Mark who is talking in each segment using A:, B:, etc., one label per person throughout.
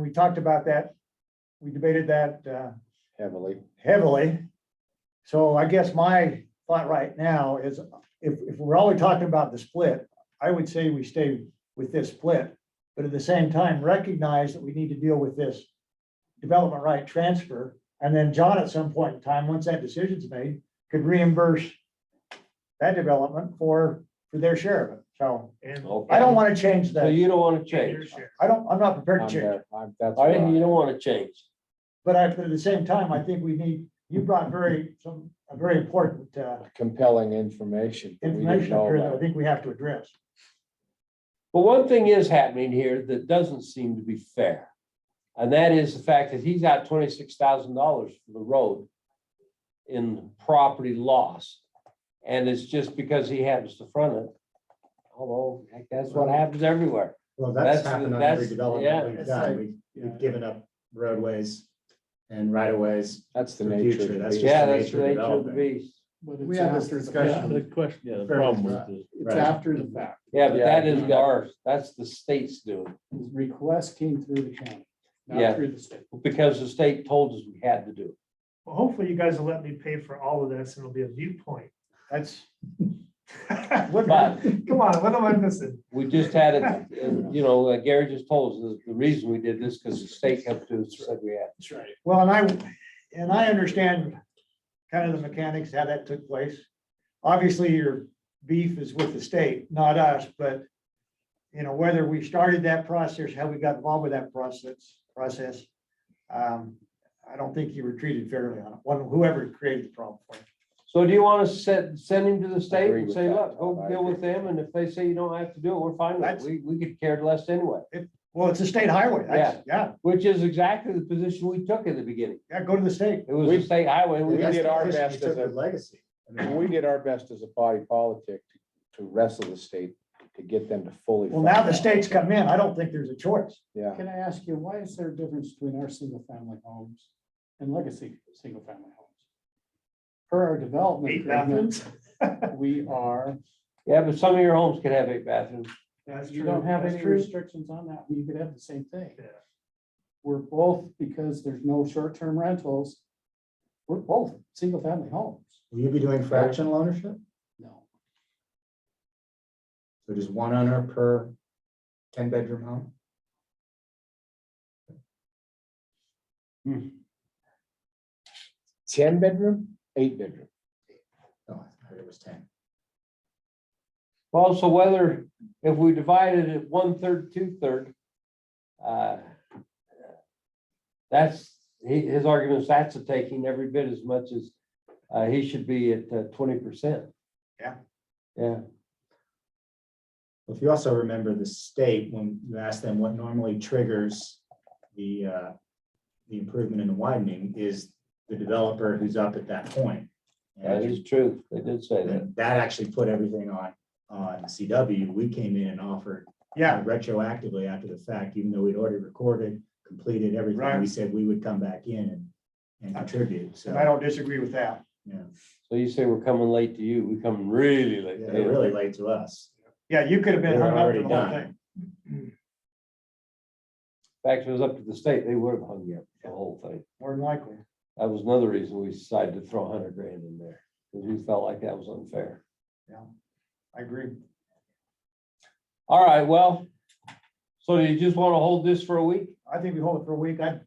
A: we talked about that. We debated that, uh,
B: heavily.
A: heavily. So I guess my thought right now is if, if we're always talking about the split, I would say we stay with this split. But at the same time, recognize that we need to deal with this development right transfer. And then John, at some point in time, once that decision's made, could reimburse that development for, for their share of it. So
C: And
A: I don't want to change
D: So
A: that.
D: you don't wanna
C: and your
D: change.
C: share.
A: I don't, I'm not prepared
B: I'm
A: to change.
B: there. I'm- That's
D: All
B: what
D: right, you
B: I-
D: don't wanna change.
A: But I, but at the same time, I think we need, you brought very, some, a very important, uh,
B: compelling information. that we didn't
A: information up
B: know
A: here that I
B: about.
A: think we have to address.
D: But one thing is happening here that doesn't seem to be fair. And that is the fact that he's out twenty-six thousand dollars for the road in property loss. And it's just because he happens to front it. Although, heck, that's what happens everywhere.
E: Well, that's
D: That's the-
E: happened on every
D: that's- yeah.
E: development we've done. We've, we've given up roadways and right of ways.
B: That's the
E: for
B: nature. of
E: future,
B: the
E: that's
B: beast.
E: just-
D: Yeah,
E: the
D: that's the
E: nature of
D: nature of the
E: development.
D: beast.
F: But
G: We
F: it's
G: had this
F: after the
E: discussion.
F: fact.
G: The question,
E: Yeah, the
G: the
E: problem
G: problem
E: was
G: with this. It's
E: Right.
G: after the fact.
D: Yeah, but that
B: Yeah.
D: isn't ours. That's the state's doing,
G: His request came through the county,
D: Yeah.
G: not through the state.
D: because the state told us we had to do it.
C: Well, hopefully you guys will let me pay for all of this and it'll be a viewpoint.
A: That's,
C: What-
D: But
C: Come on, what am I missing?
D: We just had it, uh, you know, like Gary just told us, the reason we did this, because the state kept to us, said we had.
G: That's right.
A: well, and I, and I understand kind of the mechanics, how that took place. Obviously, your beef is with the state, not us, but you know, whether we started that process, how we got involved with that process, process. um, I don't think you were treated fairly on it, one- whoever created the problem for you.
D: So do you want to send, send him to the state
B: Agree
D: and
B: with
D: say,
B: that,
D: look,
B: Todd.
D: go
B: I
D: deal with
B: agree.
D: them, and if they say you don't have to do it, we're fine with it.
A: That's-
D: We, we could care less anyway,
A: Well, it's a state highway. That's- Yeah,
D: which is exactly the position we took in the beginning.
A: yeah, go to the state.
D: It was
B: We-
D: a state highway. and
B: We
D: we
E: That's
B: did
E: the
B: our
E: position you
B: best
E: took
B: as a-
E: with Legacy. I mean,
B: We did our best as a body politic to- to wrestle the state to get them to fully.
A: Well, now
B: fund
A: the
B: that.
A: state's come in. I don't think there's a choice.
B: Yeah,
G: Can I ask you, why is there a difference between our single family homes and legacy single family homes? Per our development
C: Eight
G: agreement,
C: bathrooms?
G: we are,
D: Yeah, but some of your homes can have eight bathrooms.
C: That's
G: you
C: true,
G: don't have
C: that's
G: any
C: true.
G: restrictions on that. You could have the same thing.
C: Yeah.
G: We're both, because there's no short-term rentals, we're both single family homes.
E: Will you be doing fractional ownership?
G: No,
E: So just one owner per ten bedroom home?
B: ten bedroom, eight bedroom.
E: No, I heard it was ten.
D: Well, so whether, if we divided it one-third, two-third, uh, that's, he, his argument is that's a taking every bit as much as, uh, he should be at twenty percent.
A: Yeah.
D: Yeah,
E: Well, If you also remember the state, when you ask them what normally triggers the, uh, the improvement and the widening is the developer who's up at that point.
D: that
E: And
D: is true. They did say that.
E: then that actually put everything on, on CW. We came in and offered
A: Yeah,
E: retroactively after the fact, even though we'd already recorded, completed
A: Right.
E: everything. We said we would come back in and, and contribute.
A: and I
E: So,
A: don't disagree with that.
E: yeah,
D: So you say we're coming late to you. We come really late. to
E: they're
D: you.
E: really late to us.
A: Yeah, you could have been hung
E: They're
A: up for
E: already
A: the whole
E: done.
A: thing.
D: In fact, if it was up to the state, they would have hung you up for the whole thing.
A: More than likely.
D: That was another reason we decided to throw a hundred grand in there, because we felt like that was unfair.
A: I agree.
D: All right, well, so do you just want to hold this for a week?
A: I think we hold it for a week. I'd,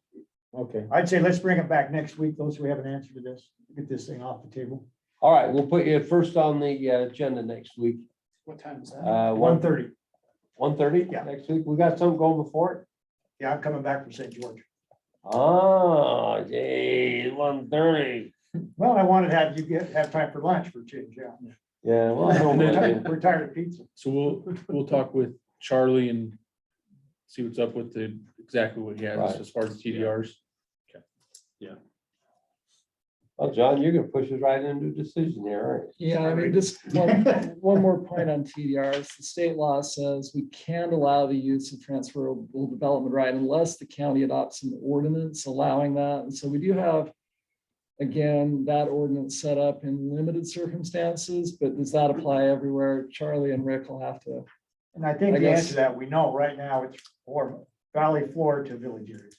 B: Okay,
A: I'd say let's bring it back next week, those we have an answer to this, get this thing off the table.
D: All right, we'll put you first on the uh, agenda next week.
G: what time is that?
D: Uh,
A: One
D: one,
A: thirty.
D: one thirty
A: Yeah.
D: next week. We got something going before it.
A: Yeah, I'm coming back from St. George.
D: Ah, gee, one thirty.
A: Well, I wanted to have you get, have time for lunch for a change, yeah.
D: Yeah, well, no
A: We're
D: worries.
A: tired- we're tired of pizza.
G: So we'll,
F: We'll talk with Charlie and see what's up with the, exactly what he has
D: Right.
F: as far as TDRs.
D: well, John, you're gonna push us right into a decision here, aren't
H: Yeah, I mean, just one, one more point on TDRs. The state law says we can't allow the use of transferable development right unless the county adopts an ordinance allowing that. And so we do have, again, that ordinance set up in limited circumstances, but does that apply everywhere? Charlie and Rick will have to
A: And I
H: I
A: think the
H: guess-
A: answer to that, we know right now it's for valley floor to village areas.